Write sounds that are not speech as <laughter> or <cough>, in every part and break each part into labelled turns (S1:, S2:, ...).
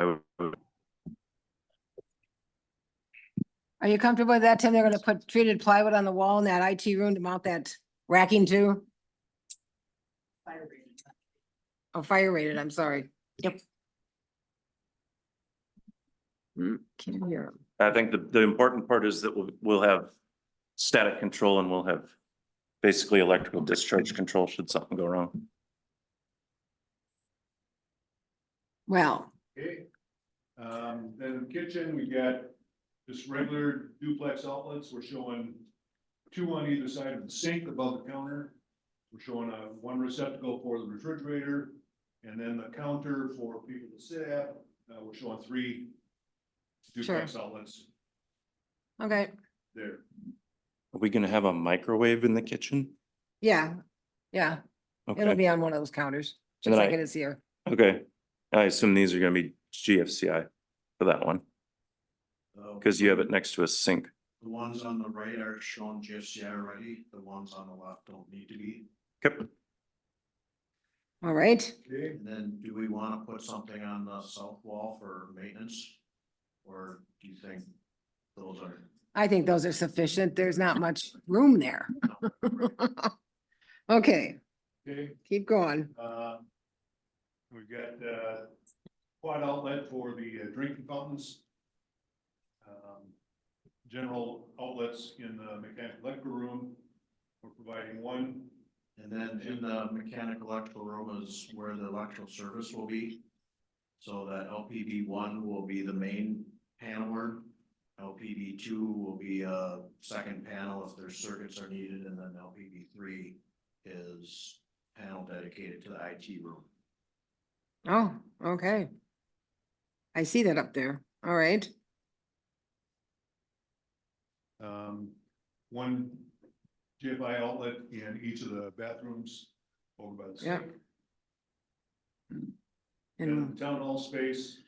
S1: I would-
S2: Are you comfortable with that, Tim? They're gonna put treated plywood on the wall in that IT room to mount that racking to? Oh, fire rated, I'm sorry. Yep. Hmm, can't hear 'em.
S1: I think the, the important part is that we'll, we'll have static control and we'll have basically electrical discharge control should something go wrong.
S2: Well,
S3: Okay, um, then kitchen, we got just regular duplex outlets, we're showing two on either side of the sink above the counter. We're showing a one receptacle for the refrigerator, and then the counter for people to sit at, uh, we're showing three duplex outlets
S2: okay,
S3: there.
S1: Are we gonna have a microwave in the kitchen?
S2: yeah, yeah, it'll
S1: Okay,
S2: be on one of those counters,
S1: And
S2: just
S1: then
S2: like
S1: I-
S2: it is here.
S1: okay. I assume these are gonna be GFCI for that one,
S4: Uh,
S1: because you have it next to a sink.
S4: The ones on the right are shown GFCI already, the ones on the left don't need to be.
S1: Yep.
S2: All right,
S3: Okay,
S4: And then do we wanna put something on the south wall for maintenance? Or do you think those are?
S2: I think those are sufficient. There's not much room there. <laughs> Okay,
S3: okay,
S2: keep going.
S3: uh, we've got, uh, quad outlet for the uh, drinking fountains. um, general outlets in the mechanical electrical room. We're providing one,
S4: And then in the mechanical electrical room is where the electrical service will be. So that LPB one will be the main paneler. LPB two will be a second panel if their circuits are needed, and then LPB three is panel dedicated to the IT room.
S2: Oh, okay. I see that up there. All right.
S3: um, one GFI outlet in each of the bathrooms over by the
S2: Yeah.
S3: sink. And
S2: And,
S3: the town hall space,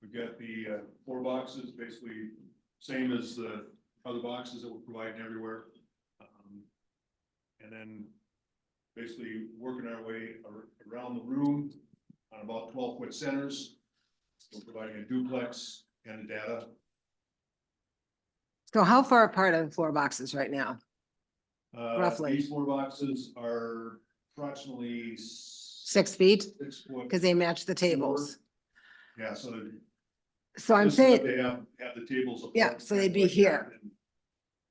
S3: we've got the, uh, four boxes, basically same as the other boxes that we're providing everywhere. Um, And then basically working our way ar- around the room on about twelve foot centers. We're providing a duplex and a data,
S2: so how far apart are the floor boxes right now?
S3: Uh,
S2: Roughly.
S3: These four boxes are approximately. Six.
S2: Six feet?
S3: Six foot,
S2: Because they match the tables.
S3: yeah, so. they're-
S2: So I'm
S3: this is what
S2: saying,
S3: They have, have the tables. apart,
S2: Yeah, so they'd be
S3: like that,
S2: here.
S3: and-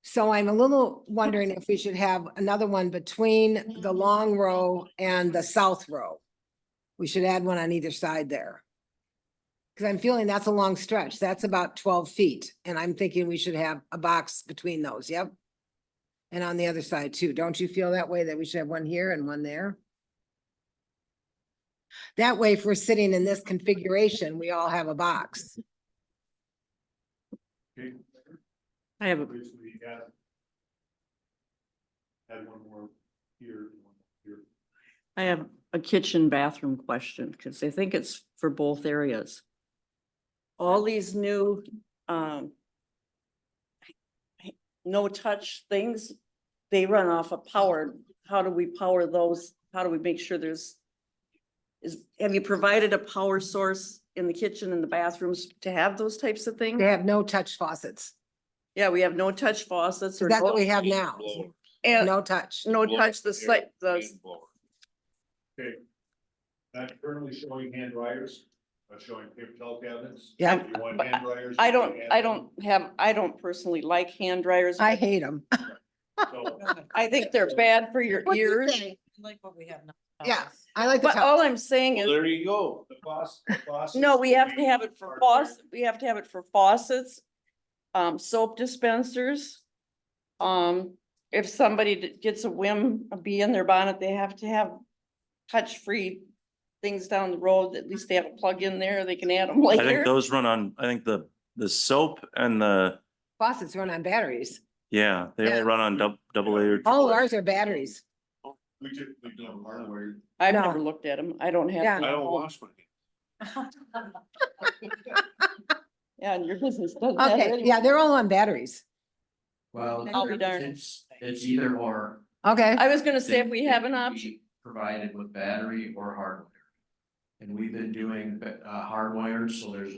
S2: so I'm a little wondering if we should have another one between the long row and the south row. We should add one on either side there. Because I'm feeling that's a long stretch. That's about twelve feet, and I'm thinking we should have a box between those, yep. And on the other side too. Don't you feel that way, that we should have one here and one there? That way, if we're sitting in this configuration, we all have a box.
S3: Okay,
S5: I have a,
S3: basically add. Add one more here, and one here.
S5: I have a kitchen bathroom question because I think it's for both areas. All these new, um, no touch things, they run off of power. How do we power those? How do we make sure there's is, have you provided a power source in the kitchen and the bathrooms to have those types of things?
S2: They have no touch faucets.
S5: Yeah, we have no touch faucets or
S2: That's what
S5: no,
S2: we have now.
S5: and
S2: No touch.
S5: no touch the site, the
S3: Not currently showing hand dryers, but showing paper towel cabinets.
S2: Yeah.
S3: If you want hand dryers.
S5: I
S3: you can
S5: don't,
S3: add
S5: I
S3: them.
S5: don't have, I don't personally like hand dryers.
S2: I
S5: but
S2: hate them.
S3: So,
S5: I think they're bad for your ears.
S6: Like what we have now.
S2: Yeah, I like the
S5: But all
S2: touch.
S5: I'm saying is,
S1: There you go.
S3: The faucet, the faucet.
S5: no, we have to have it for faucets, we have to have it for faucets, um, soap dispensers. Um, if somebody d- gets a whim, a bee in their bonnet, they have to have touch-free things down the road, at least they have a plug in there, they can add them
S1: I think
S5: later.
S1: those run on, I think the, the soap and the,
S2: Faucets run on batteries.
S1: yeah, they
S2: Yeah.
S1: all run on dub- double A or
S2: All
S1: triple
S2: of
S1: A.
S2: ours are batteries.
S3: We typically don't hardware.
S5: I've
S2: no.
S5: never looked at them, I don't have.
S2: Yeah.
S5: them at home. Yeah, and your business does that
S2: Okay,
S5: anyway.
S2: yeah, they're all on batteries.
S4: Well.
S5: I'll be darned.
S4: It's, it's either or.
S2: Okay,
S5: I was gonna say, if
S4: They-
S5: we
S4: they
S5: have an
S4: can
S5: option,
S4: be Provided with battery or hardware. And we've been doing, uh, hardwire, so there's